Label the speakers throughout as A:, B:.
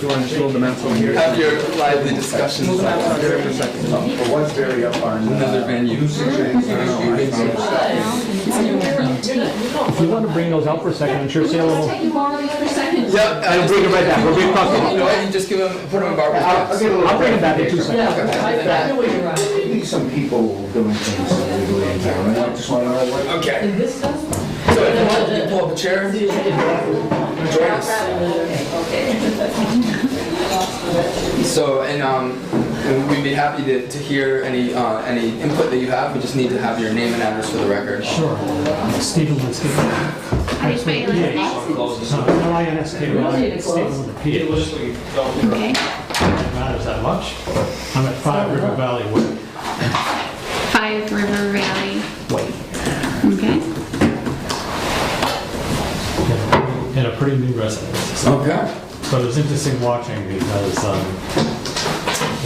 A: you want to build the maps on here?
B: Have your lively discussions. For once, very up our. Another venue.
A: If you want to bring those out for a second, I'm sure Salem will.
C: you more than other seconds.
B: Yep,
A: I'll bring it right back. We'll bring it back.
B: You know, what, you just give them, put them in Barbara's
A: Uh,
D: I'll I'll
B: box.
D: get a little.
A: I'll bring it back in two seconds.
C: I know where you're at.
D: Maybe some people doing things illegally in town, and I just want to know what.
B: Okay,
C: This stuff?
B: so if you want, you can pull up a chair. Join us. So, and, um, and we'd be happy to, to hear any, uh, any input that you have. We just need to have your name and address for the record.
E: Sure. Stephen Lynn, Stephen.
F: How do you spell your last name?
E: L I N S K Y, Stephen with a P. It
F: Okay.
E: matters that much. I'm at Five River Valley Way.
F: Five River Valley Way. Okay.
E: In a pretty new residence.
B: Okay.
E: So it was interesting watching because um,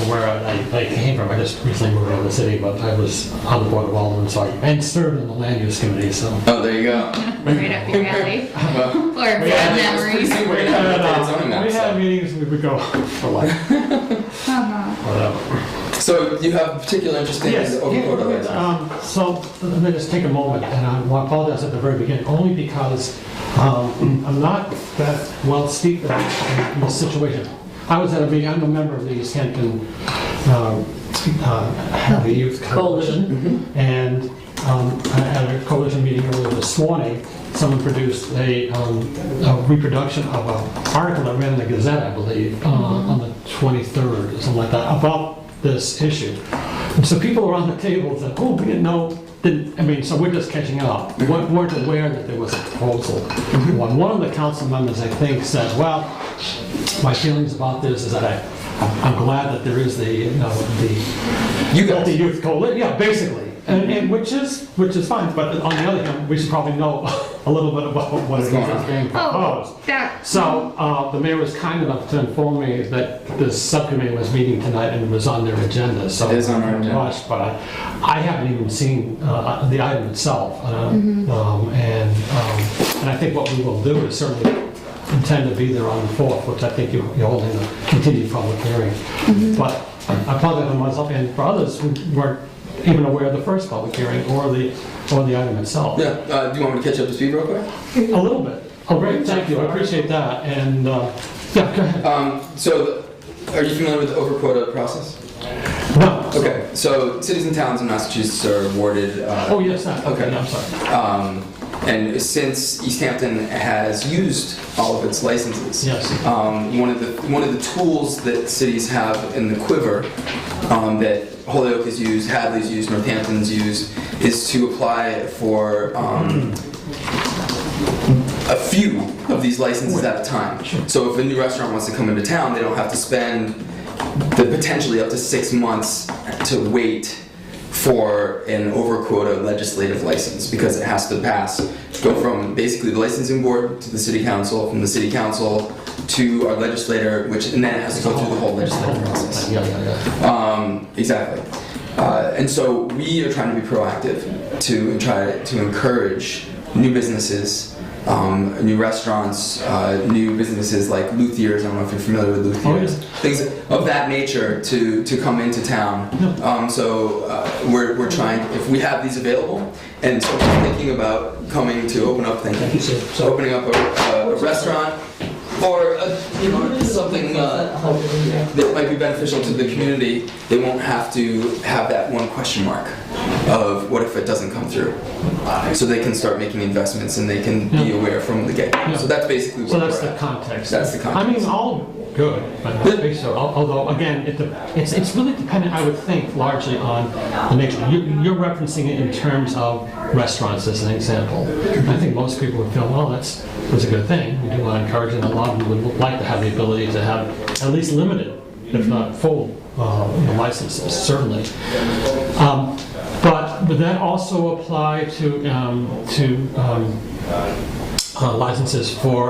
E: where I, I came from, I just recently moved out of the city, but I was on the board of Alderman, so I, and served on the land use committee, so.
B: Oh, there you go.
F: Right up your alley.
B: Well,
F: Or bad memories.
B: soon we're gonna have an updated zoning map,
E: We
B: so.
E: had meetings, we would go for like,
F: Uh-huh.
E: whatever.
B: So you have particular interest in
E: Yes,
B: the open
E: yeah,
B: overlays?
E: um, so let me just take a moment, and I will apologize at the very beginning, only because um, I'm not that well steeped in in this situation. I was at a meeting, I'm a member of the East Hampton, um, uh, the Youth Coalition, and um, I had a coalition meeting earlier this morning, someone produced a um, a reproduction of an article that ran in the Gazette, I believe, uh, on the 23rd, or something like that, about this issue. And So people around the table said, oh, we didn't know, didn't, I mean, so we're just catching up. We weren't weren't aware that there was a proposal. One one of the council members, I think, said, well, my feelings about this is that I, I'm glad that there is the, you know, the.
B: You guys.
E: The youth coalition, yeah, basically. And, and which is, which is fine, but on the other hand, we should probably know a little bit about what it is
B: going
E: that's
B: on?
E: being proposed.
F: Oh, that,
E: So, uh, the mayor was kind enough to inform me that this subcommittee was meeting tonight and was on their agenda, so.
B: It is on our
E: I'm
B: agenda.
E: rushed, But I I haven't even seen uh, the item itself. uh, um, And, um, and I think what we will do is certainly intend to be there on the 4th, which I think you- you're holding a continued public hearing. But I apologize for myself and for others who weren't even aware of the first public hearing or the, or the item itself.
B: Yeah, uh, do you want me to catch up to speed real quick?
E: A little bit. Oh, great, thank you, I appreciate that, and, uh, yeah, go ahead.
B: Um, so, are you familiar with the over quota process?
E: No.
B: Okay, so cities and towns in Massachusetts are awarded. Uh,
E: Oh, yes, that, okay,
B: Okay.
E: I'm sorry.
B: Um, and since East Hampton has used all of its licenses,
E: Yes.
B: um, one of the one of the tools that cities have in the quiver um, that Holyoke has used, Hadley's used, Northampton's used, is to apply for um, a few of these licenses at a time. So if a new restaurant wants to come into town, they don't have to spend the potentially up to six months to wait for an over quota legislative license because it has to pass go from basically the licensing board to the city council, from the city council to our legislator, which and then it has to go through the whole legislative process.
E: Yeah, yeah, yeah.
B: Um, exactly. Uh, and so we are trying to be proactive to try to encourage new businesses, um, new restaurants, uh, new businesses like Luthiers. I don't know if you're familiar with Luthiers.
E: Oh, yes.
B: Things of that nature to, to come into town. Um, so uh, we're, we're trying, if we have these available, and so we're thinking about coming to open up, thank you. So opening up a, a restaurant or a, you know, something uh, that might be beneficial to the community, they won't have to have that one question mark of what if it doesn't come through. So they can start making investments and they can be
E: Yeah.
B: aware from the get.
E: Yeah.
B: So that's basically
E: So
B: what
E: that's
B: we're
E: the
B: at.
E: context.
B: That's the
E: I mean,
B: context.
E: all good, but I think so, Al- although, again, it, de- it's, it's really dependent, I would think, largely on the nature. You- You're referencing it in terms of restaurants as an example. I think most people would feel, well, that's, that's a good thing, we do want to encourage it, and a lot of them would like to have the ability to have at least limited, if not full, uh, you know, licenses, certainly. Um, But would that also apply to, um, to um, uh, licenses for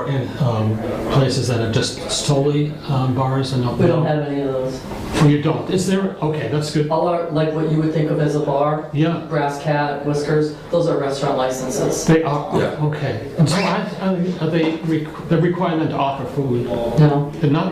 E: um, places that are just solely um, bars and
G: We don't have any of those.
E: Well, you don't. Is there? Okay, that's good.
G: All our, like what you would think of as a bar,
E: Yeah,
G: Brass Cat, Whiskers, those are restaurant licenses.
E: they are.
B: Yeah.
E: Okay. And so, I, I, are they? Re- they're requiring them to offer food.
G: No?
E: They're not